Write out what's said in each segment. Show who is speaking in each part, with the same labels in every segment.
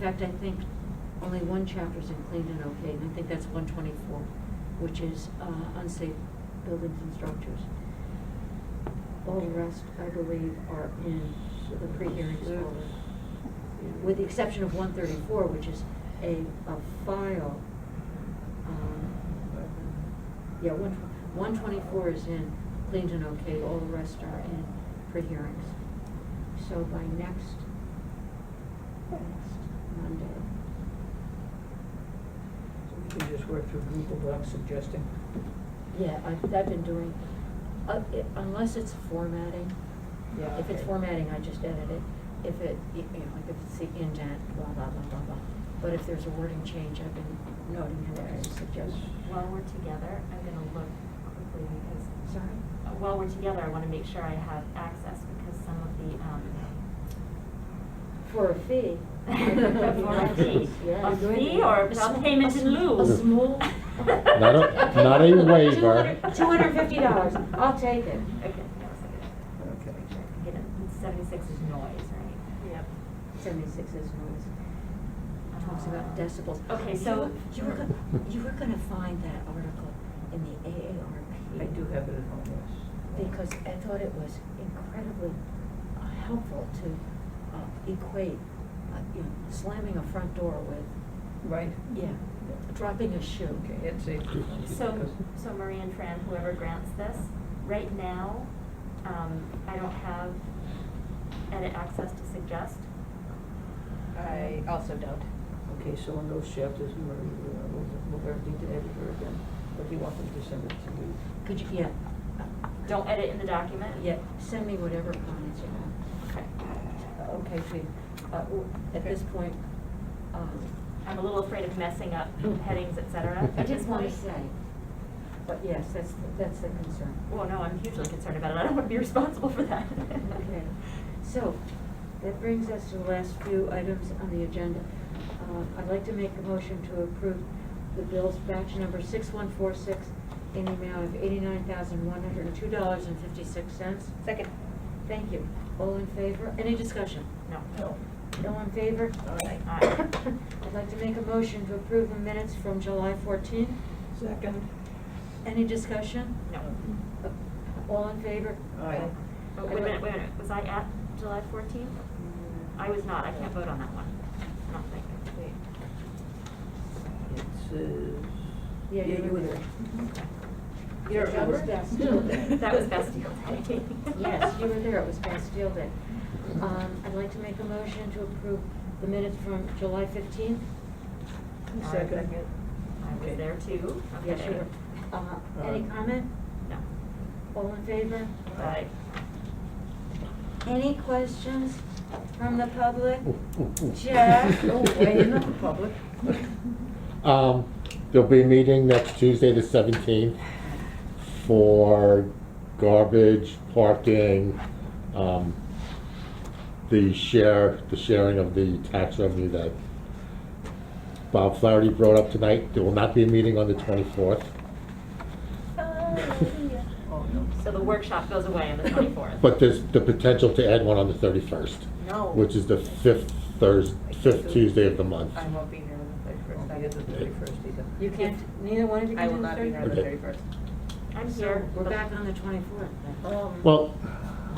Speaker 1: fact, I think only one chapter's in clean and okay, and I think that's one twenty-four, which is, uh, unsafe buildings and structures. All the rest, I believe, are in the pre-hearing folder. With the exception of one thirty-four, which is a, a file, um, yeah, one, one twenty-four is in clean and okay, all the rest are in pre-hearings. So by next, next Monday,
Speaker 2: We can just work through Google Docs suggesting.
Speaker 1: yeah, I've, I've been doing, uh, i- unless it's formatting.
Speaker 2: Yeah,
Speaker 1: If it's
Speaker 2: okay.
Speaker 1: formatting, I just edit it. If it, you know, like if it's the indent, blah, blah, blah, blah, blah. But if there's a wording change, I've been noting it as a suggestion.
Speaker 3: While we're together, I'm gonna look quickly because,
Speaker 1: Sorry?
Speaker 3: uh, while we're together, I wanna make sure I have access because some of the, um,
Speaker 1: For a fee.
Speaker 3: for a fee,
Speaker 1: Yeah.
Speaker 3: a fee or a payment in lieu.
Speaker 1: A small.
Speaker 4: Not a- not a waiver.
Speaker 1: Two hundred and fifty dollars, I'll take it.
Speaker 3: Okay, that was good.
Speaker 2: Okay.
Speaker 3: Get it, seventy-six is noise, right?
Speaker 5: Yep.
Speaker 1: Seventy-six is noise. Talks about
Speaker 3: Uh,
Speaker 1: decibels.
Speaker 3: Okay,
Speaker 1: You
Speaker 3: so-
Speaker 1: were- You were gonna, you were gonna find that article in the AARP.
Speaker 2: I do have it at home, yes.
Speaker 1: because I thought it was incredibly uh, helpful to uh, equate, uh, you know, slamming a front door with,
Speaker 2: Right?
Speaker 1: yeah, dropping a shoe.
Speaker 2: Okay, that's it.
Speaker 3: So, so Marie and Fran, whoever grants this, right now, um, I don't have edit access to suggest.
Speaker 5: I also don't.
Speaker 2: Okay, so in those chapters, Marie, uh, we'll, we'll have to edit her again, but you want them to send it to me.
Speaker 1: Could you, yeah, uh,
Speaker 3: Don't edit in the document?
Speaker 1: yeah, send me whatever comments you have.
Speaker 3: Okay.
Speaker 2: Okay, Pete.
Speaker 1: Uh, w- At this point, um,
Speaker 3: I'm a little afraid of messing up headings, et cetera.
Speaker 1: I
Speaker 3: at this
Speaker 1: just want to
Speaker 3: point.
Speaker 1: say, but yes, that's, that's the concern.
Speaker 3: Well, no, I'm hugely concerned about it. I don't want to be responsible for that.
Speaker 1: Okay, so, that brings us to the last few items on the agenda. Uh, I'd like to make a motion to approve the bills batch number six one four six in the amount of eighty-nine thousand one hundred and two dollars and fifty-six cents.
Speaker 5: Second.
Speaker 1: Thank you. All in favor? Any discussion?
Speaker 3: No.
Speaker 2: No.
Speaker 1: No in favor?
Speaker 2: Aye.
Speaker 3: Aye.
Speaker 1: I'd like to make a motion to approve the minutes from July fourteen.
Speaker 2: Second.
Speaker 1: Any discussion?
Speaker 3: No.
Speaker 1: Uh, All in favor?
Speaker 2: Aye.
Speaker 3: Oh, Wait a minute, wait a minute. Was I at July 14th? I was not. I can't vote on that one. I don't think.
Speaker 2: It says.
Speaker 1: Yeah, Mm-hmm. you were there.
Speaker 2: You're.
Speaker 1: That was Bastille Day.
Speaker 3: That was Bastille Day.
Speaker 1: Yes, you were there, it was Bastille Day. Um, I'd like to make a motion to approve the minutes from July fifteenth.
Speaker 2: Second.
Speaker 3: I was there too.
Speaker 1: Yes, you
Speaker 3: Okay.
Speaker 1: were. Uh, Any
Speaker 2: Aye.
Speaker 1: comment?
Speaker 3: No.
Speaker 1: All in favor?
Speaker 3: Aye.
Speaker 1: Any questions from the public?
Speaker 4: Yeah.
Speaker 1: Jeff?
Speaker 2: No way, Oh, you're not public.
Speaker 4: Um, there'll be a meeting next Tuesday, the seventeenth, for garbage, parking, um, the share, the sharing of the tax revenue that Bob Flaherty brought up tonight. There will not be a meeting on the twenty-fourth.
Speaker 2: Oh, no.
Speaker 3: So the workshop goes away on the 24th.
Speaker 4: But there's the potential to add one on the thirty-first,
Speaker 5: No.
Speaker 4: which is the fifth Thurs, fifth Tuesday of the month.
Speaker 5: I won't be here on the
Speaker 2: Won't be at the
Speaker 5: thirty-first.
Speaker 2: thirty-first either.
Speaker 1: You can't, neither one of you can
Speaker 5: I will
Speaker 1: do the
Speaker 5: not be here on the
Speaker 4: Okay.
Speaker 5: thirty-first.
Speaker 3: I'm
Speaker 1: So
Speaker 3: here.
Speaker 1: we're
Speaker 3: but-
Speaker 1: back on the twenty-fourth then.
Speaker 2: Um,
Speaker 4: Well,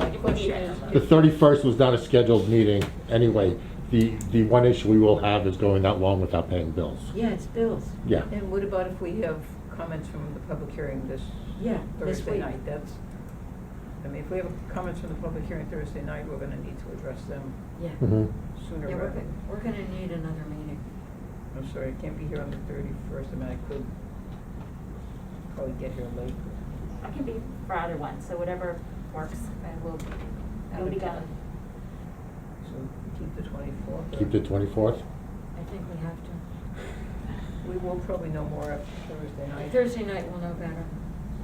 Speaker 3: if we need it.
Speaker 4: The thirty-first was not a scheduled meeting anyway. The, the one issue we will have is going that long without paying bills.
Speaker 1: Yeah, it's bills.
Speaker 4: Yeah.
Speaker 2: And what about if we have comments from the public hearing this
Speaker 1: Yeah, this
Speaker 2: Thursday
Speaker 1: week.
Speaker 2: night? That's, I mean, if we have comments from the public hearing Thursday night, we're gonna need to address them
Speaker 1: Yeah.
Speaker 4: Mhm.
Speaker 2: sooner
Speaker 1: Yeah, we're,
Speaker 2: rather.
Speaker 1: go- we're gonna need another meeting.
Speaker 2: I'm sorry, I can't be here on the thirty-first, I mean, I could probably get here late.
Speaker 3: I can be for either one, so whatever works.
Speaker 5: I will be. out
Speaker 3: Nobody
Speaker 5: of
Speaker 3: got
Speaker 5: town.
Speaker 3: it.
Speaker 2: So keep the twenty-fourth.
Speaker 4: Keep the twenty-fourth?
Speaker 1: I think we have to.
Speaker 2: We will probably know more after Thursday night.
Speaker 1: Thursday night we'll know better.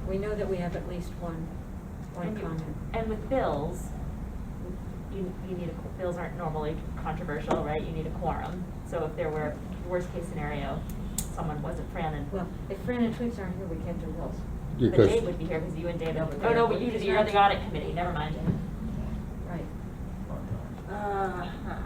Speaker 1: We know that we have at least one, one
Speaker 3: And you-
Speaker 1: comment.
Speaker 3: And with bills, you, you need a, qu- bills aren't normally controversial, right? You need a quorum. So if there were, worst case scenario, someone wasn't Fran and,
Speaker 1: Well, if Fran and Twigs aren't here, we can't do Wells.
Speaker 3: but
Speaker 4: Because
Speaker 3: Dave would be here because you and David,
Speaker 2: No, but
Speaker 3: oh, no,
Speaker 2: Dave
Speaker 3: but you,
Speaker 2: would-
Speaker 3: you're on the audit committee, never mind.
Speaker 1: Right.
Speaker 2: Oh, no.
Speaker 3: Uh, huh.